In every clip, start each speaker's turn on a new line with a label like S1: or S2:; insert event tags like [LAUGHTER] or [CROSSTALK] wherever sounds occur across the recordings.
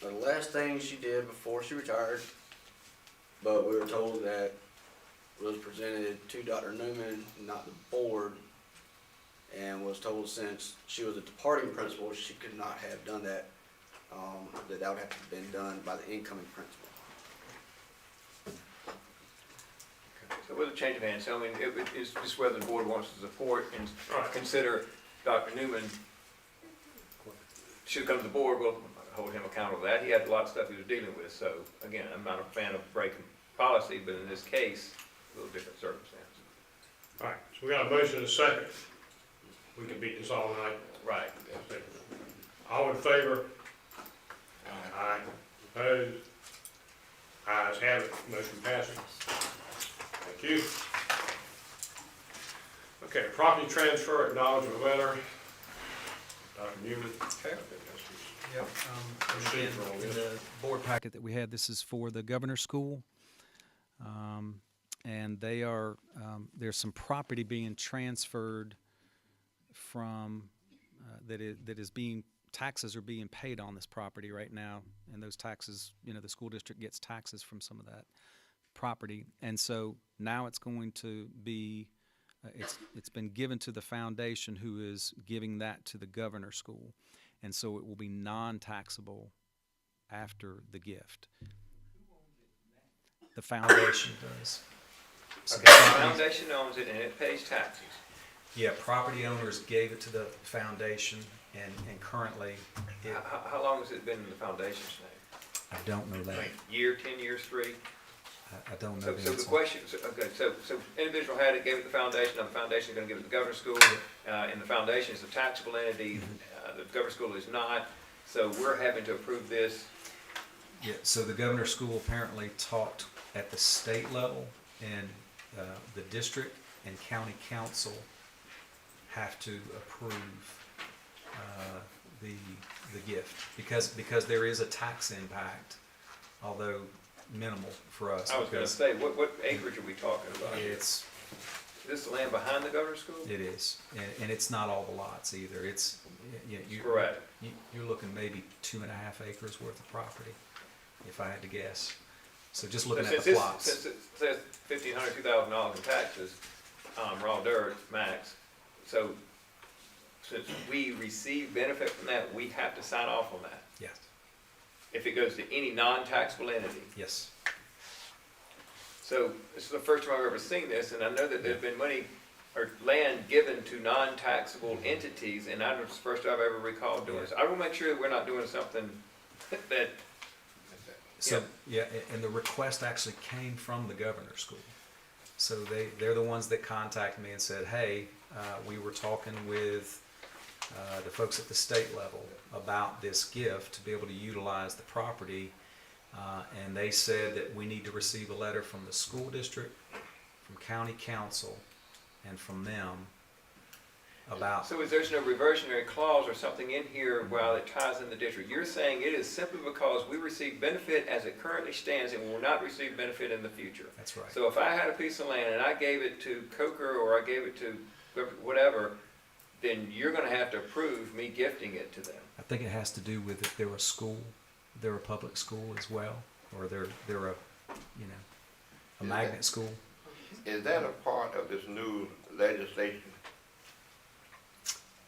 S1: the last thing she did before she retired, but we were told that was presented to Dr. Newman, not the board, and was told since she was a departing principal, she could not have done that, um, that that would have to have been done by the incoming principal.
S2: So with a change of hands, so I mean, it, it- it's just whether the board wants to support and
S3: Right.
S2: consider Dr. Newman should come to the board, we'll hold him accountable for that. He had a lot of stuff he was dealing with, so again, I'm not a fan of breaking policy, but in this case, a little different circumstance.
S3: All right, so we got a motion and a second. We can beat this all night.
S2: Right.
S3: All in favor? Aye. Opposed? Ayes have it, motion passes. Thank you. Okay, property transfer, acknowledgement letter. Dr. Newman. Okay.
S4: Yep. um, and
S3: Proceed
S4: again,
S3: for all
S4: in
S3: this.
S4: the board packet that we had, this is for the governor's school. Um, And they are, um, there's some property being transferred from, uh, that is, that is being, taxes are being paid on this property right now. And those taxes, you know, the school district gets taxes from some of that property. And so now it's going to be, uh, it's, it's been given to the foundation who is giving that to the governor school. And so it will be non-taxable after the gift. The foundation does. So
S2: Okay,
S4: the
S2: the
S4: foundation-
S2: foundation owns it and it pays taxes.
S4: Yeah, property owners gave it to the foundation and, and currently,
S2: How,
S4: it-
S2: how- how long has it been in the foundation's name?
S4: I don't know that.
S2: Year, ten years, three?
S4: I, I don't know
S2: So,
S4: the
S2: so the
S4: answer.
S2: question, so- okay, so, so individual had it, gave it to the foundation, now the foundation's gonna give it to the governor's school, uh, and the foundation is a taxable entity,
S4: Mm-hmm.
S2: uh, the governor's school is not, so we're having to approve this,
S4: Yeah, so the governor's school apparently talked at the state level and uh, the district and county council have to approve uh, the, the gift because, because there is a tax impact, although minimal for us.
S2: I was gonna
S4: because
S2: say, what, what acreage are we talking about? Is
S4: It's,
S2: this the land behind the governor's school?
S4: it is, and, and it's not all the lots either. It's, you know, you.
S2: Correct.
S4: You, you're looking maybe two and a half acres worth of property, if I had to guess. So just
S2: So
S4: looking at
S2: since
S4: the
S2: this-
S4: plots.
S2: Since it says fifteen hundred, two thousand dollars in taxes, um, raw dirt, max, so, since we receive benefit from that, we have to sign off on that,
S4: Yes,
S2: if it goes to any non-taxable entity.
S4: yes.
S2: So this is the first time I've ever seen this, and I know that there's been money or land given to non-taxable entities, and I'm the first time I've ever recalled doing this. I will make sure that we're not doing something [LAUGHS] that,
S4: So, yeah, a- and the request actually came from the governor's school. So they, they're the ones that contacted me and said, hey, uh, we were talking with uh, the folks at the state level about this gift to be able to utilize the property. Uh, And they said that we need to receive a letter from the school district, from county council, and from them about,
S2: so is there's no reversionary clause or something in here while it ties in the district? You're saying it is simply because we receive benefit as it currently stands and will not receive benefit in the future.
S4: that's right.
S2: So if I had a piece of land and I gave it to Coker or I gave it to whatever, then you're gonna have to approve me gifting it to them.
S4: I think it has to do with if they're a school, they're a public school as well, or they're they're a, you know, a
S5: Yeah.
S4: magnet school.
S5: Is that a part of this new legislation?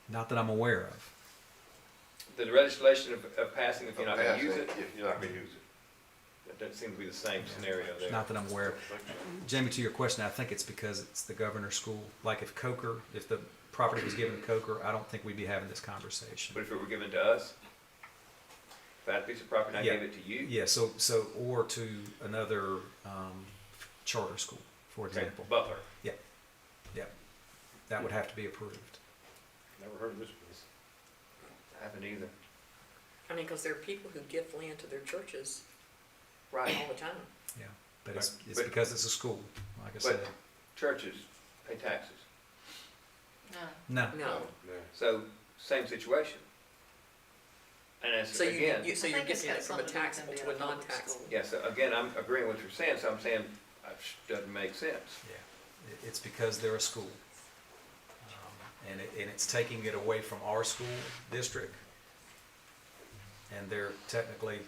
S4: Not that I'm aware of.
S2: The legislation of, of passing, if you're not gonna use it,
S5: If you're not gonna use it.
S2: that doesn't seem to be the same scenario there.
S4: Not that I'm aware of. Jamie, to your question, I think it's because it's the governor's school. Like if Coker, if the property was given to Coker, I don't think we'd be having this
S2: But
S4: conversation.
S2: if it were given to us, if I had a piece of property and I
S4: Yeah.
S2: gave it to you,
S4: Yeah. So so or to another um, charter school, for
S2: okay,
S4: example.
S2: Butler,
S4: Yeah. Yeah. That would have to be approved.
S3: Never heard of this place.
S2: happened either.
S6: I mean, because there are people who give land to their churches
S2: Right.
S6: all the time.
S4: Yeah. But it's, it's
S2: But-
S4: because it's a school, like I
S2: But-
S4: said.
S2: Churches pay taxes,
S4: No.
S6: No.
S2: so same situation. And that's,
S6: So you,
S2: again,
S6: you, so
S7: I
S6: you're
S7: think it's
S6: getting it
S7: got
S6: from a
S7: something to
S6: taxable
S7: do
S6: to a
S7: with public
S6: non-taxable.
S7: school.
S2: yeah, so again, I'm agreeing with what you're saying, so I'm saying, uh, sh- doesn't make sense.
S4: Yeah, It- it's because they're a school. Um, And it, and it's taking it away from our school district. And they're technically